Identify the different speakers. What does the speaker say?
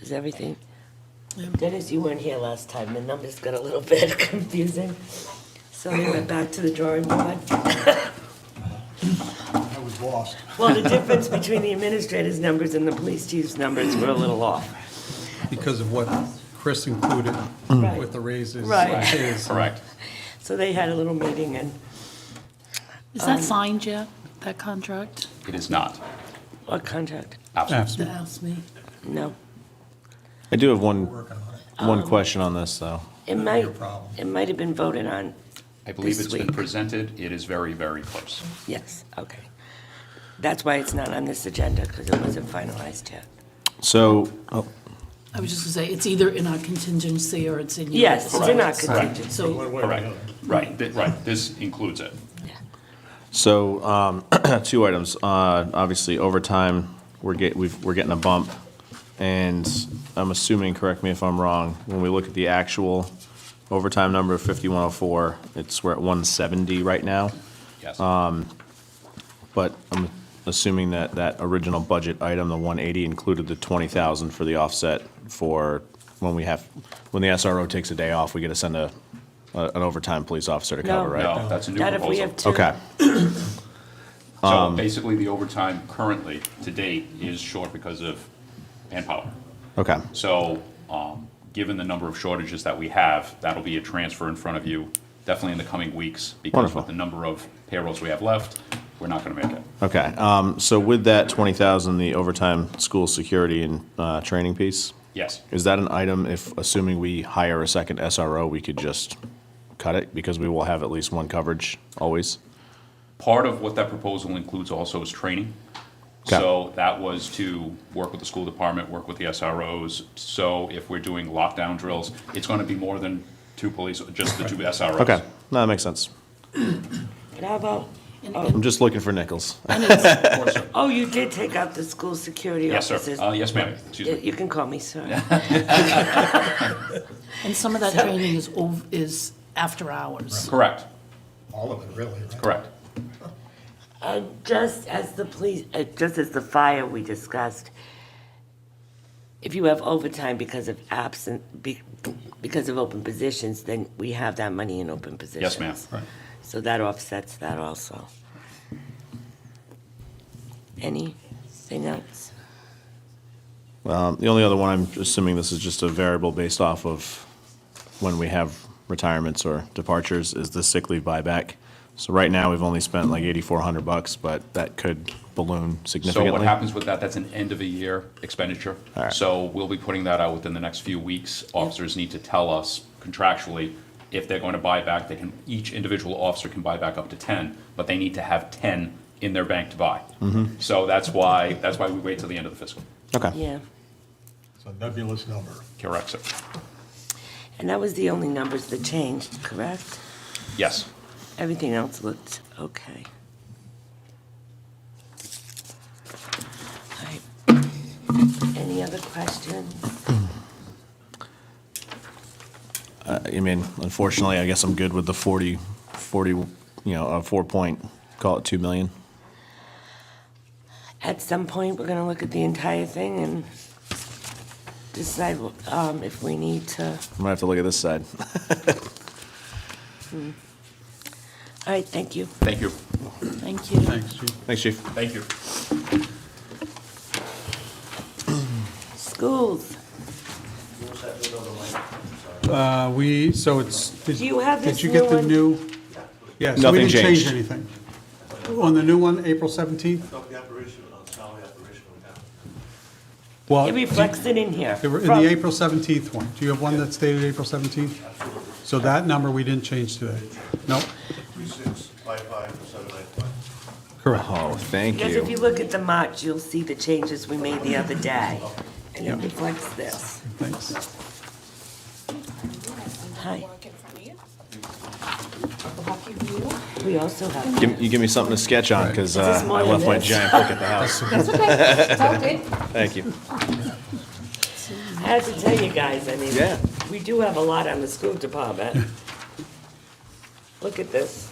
Speaker 1: is everything. Dennis, you weren't here last time, the numbers got a little bit confusing. So they went back to the drawing board.
Speaker 2: I was lost.
Speaker 1: Well, the difference between the administrator's numbers and the police chief's numbers were a little off.
Speaker 2: Because of what Chris included
Speaker 1: Right.
Speaker 2: with the raises.
Speaker 1: Right.
Speaker 2: his,
Speaker 3: Correct.
Speaker 1: So they had a little meeting and,
Speaker 4: Is that signed yet, that contract?
Speaker 3: It is not.
Speaker 1: what contract?
Speaker 3: Absolutely.
Speaker 4: That asked me.
Speaker 1: No.
Speaker 5: I do have one,
Speaker 2: Working on it.
Speaker 5: one question on this, though.
Speaker 1: It
Speaker 2: Not
Speaker 1: might,
Speaker 2: your problem.
Speaker 1: it might have been voted on,
Speaker 3: I believe
Speaker 1: This
Speaker 3: it's been
Speaker 1: week.
Speaker 3: presented. It is very, very close.
Speaker 1: yes, okay. That's why it's not on this agenda, because it wasn't finalized yet.
Speaker 5: So, oh,
Speaker 4: I was just gonna say, it's either in our contingency or it's in your.
Speaker 1: Yes, it's in our
Speaker 4: So-
Speaker 1: contingency.
Speaker 4: So,
Speaker 2: One way or
Speaker 3: Correct.
Speaker 2: another.
Speaker 3: Right, Th- right. This includes it.
Speaker 5: so, um, two items. Uh, obviously overtime, we're get, we've, we're getting a bump. And I'm assuming, correct me if I'm wrong, when we look at the actual overtime number of fifty-one oh four, it's, we're at one seventy right now.
Speaker 3: Yes.
Speaker 5: But I'm assuming that that original budget item, the one eighty, included the twenty thousand for the offset for when we have, when the SRO takes a day off, we get to send a, a- an overtime police officer to cover,
Speaker 1: No.
Speaker 5: right?
Speaker 3: No, that's a new
Speaker 1: Not if we
Speaker 3: proposal.
Speaker 1: have two.
Speaker 5: Okay,
Speaker 3: So basically, the overtime currently to date is short because of manpower.
Speaker 5: okay,
Speaker 3: So, um, given the number of shortages that we have, that'll be a transfer in front of you, definitely in the coming weeks. Because
Speaker 5: Wonderful.
Speaker 3: with the number of payrolls we have left, we're not gonna make it.
Speaker 5: okay. Um, so with that twenty thousand, the overtime school security and, uh, training piece,
Speaker 3: Yes,
Speaker 5: is that an item if, assuming we hire a second SRO, we could just cut it? Because we will have at least one coverage always?
Speaker 3: part of what that proposal includes also is training.
Speaker 5: Okay.
Speaker 3: So that was to work with the school department, work with the SROs. So if we're doing lockdown drills, it's gonna be more than two police, just the two SROs.
Speaker 5: Okay, no, that makes sense.
Speaker 1: And how about,
Speaker 4: and-
Speaker 5: I'm
Speaker 4: and
Speaker 5: just looking for nickels.
Speaker 3: Of course, sir.
Speaker 1: oh, you did take out the school security
Speaker 3: Yes,
Speaker 1: officers.
Speaker 3: sir. Uh, yes, ma'am, excuse me.
Speaker 1: You can call me, sir.
Speaker 4: and some of that training is, ov- is after hours.
Speaker 3: Correct,
Speaker 2: All of it, really. right?
Speaker 3: correct.
Speaker 1: And Uh, just as the police, uh, just as the fire we discussed, if you have overtime because of absent, be- because of open positions, then we have that money in open positions.
Speaker 3: Yes, ma'am. Right.
Speaker 1: So that offsets that also. Anything else?
Speaker 5: Um, The only other one, I'm assuming this is just a variable based off of when we have retirements or departures, is the sick leave buyback. So right now, we've only spent like 8,400 bucks, but that could balloon
Speaker 3: So what
Speaker 5: significantly.
Speaker 3: happens with that, that's an end-of-the-year expenditure.
Speaker 5: All right.
Speaker 3: So we'll be putting that out within the next few weeks. Officers need to tell us contractually if they're going to buy back, they can, each individual officer can buy back up to 10, but they need to have 10 in their bank to buy.
Speaker 5: Mm-hmm.
Speaker 3: So that's why, that's why we wait till the end of the fiscal.
Speaker 5: Okay.
Speaker 1: Yeah,
Speaker 2: It's a nebulous number.
Speaker 3: Correct, sir.
Speaker 1: and that was the only numbers that changed, correct?
Speaker 3: Yes.
Speaker 1: Everything else looked okay. All right. Any other questions?
Speaker 5: I mean, unfortunately, I guess I'm good with the 40, 40, you know, a four point, call it 2 million.
Speaker 1: At some point, we're gonna look at the entire thing and decide um, if we need to.
Speaker 5: I'm gonna have to look at this side.
Speaker 1: All right, thank you.
Speaker 3: Thank you.
Speaker 4: Thank you.
Speaker 5: Thanks, chief.
Speaker 3: Thank you.
Speaker 1: Schools,
Speaker 2: Uh, we, so it's. did-
Speaker 1: Do you have this
Speaker 2: Did you get the
Speaker 1: new
Speaker 2: new? Yes.
Speaker 5: Nothing
Speaker 2: We didn't
Speaker 5: changed.
Speaker 2: change anything. On the new one, April 17th?
Speaker 6: Not the operational, not salary operational now.
Speaker 2: Well,
Speaker 1: it reflects it in here.
Speaker 2: Uh, they were in
Speaker 1: From-
Speaker 2: the April 17th one. Do you have one that's dated April 17th? So that number we didn't change today. No,
Speaker 6: Three, six, five, five, seven, nine, five.
Speaker 2: correct.
Speaker 5: Oh, thank
Speaker 1: Because if you
Speaker 5: you.
Speaker 1: look at the March, you'll see the changes we made the other day, and it reflects this.
Speaker 2: Thanks.
Speaker 1: Hi,
Speaker 7: work in front of you. Lucky you.
Speaker 1: we also have.
Speaker 5: Give- You give me something to sketch on, because
Speaker 1: Is this more
Speaker 5: I
Speaker 1: than
Speaker 5: left my
Speaker 1: this?
Speaker 5: giant book at the house.
Speaker 7: That's okay. It's all good.
Speaker 5: Thank you.
Speaker 1: I have to tell you guys, I mean,
Speaker 5: Yeah.
Speaker 1: we do have a lot on the school department. Look at this.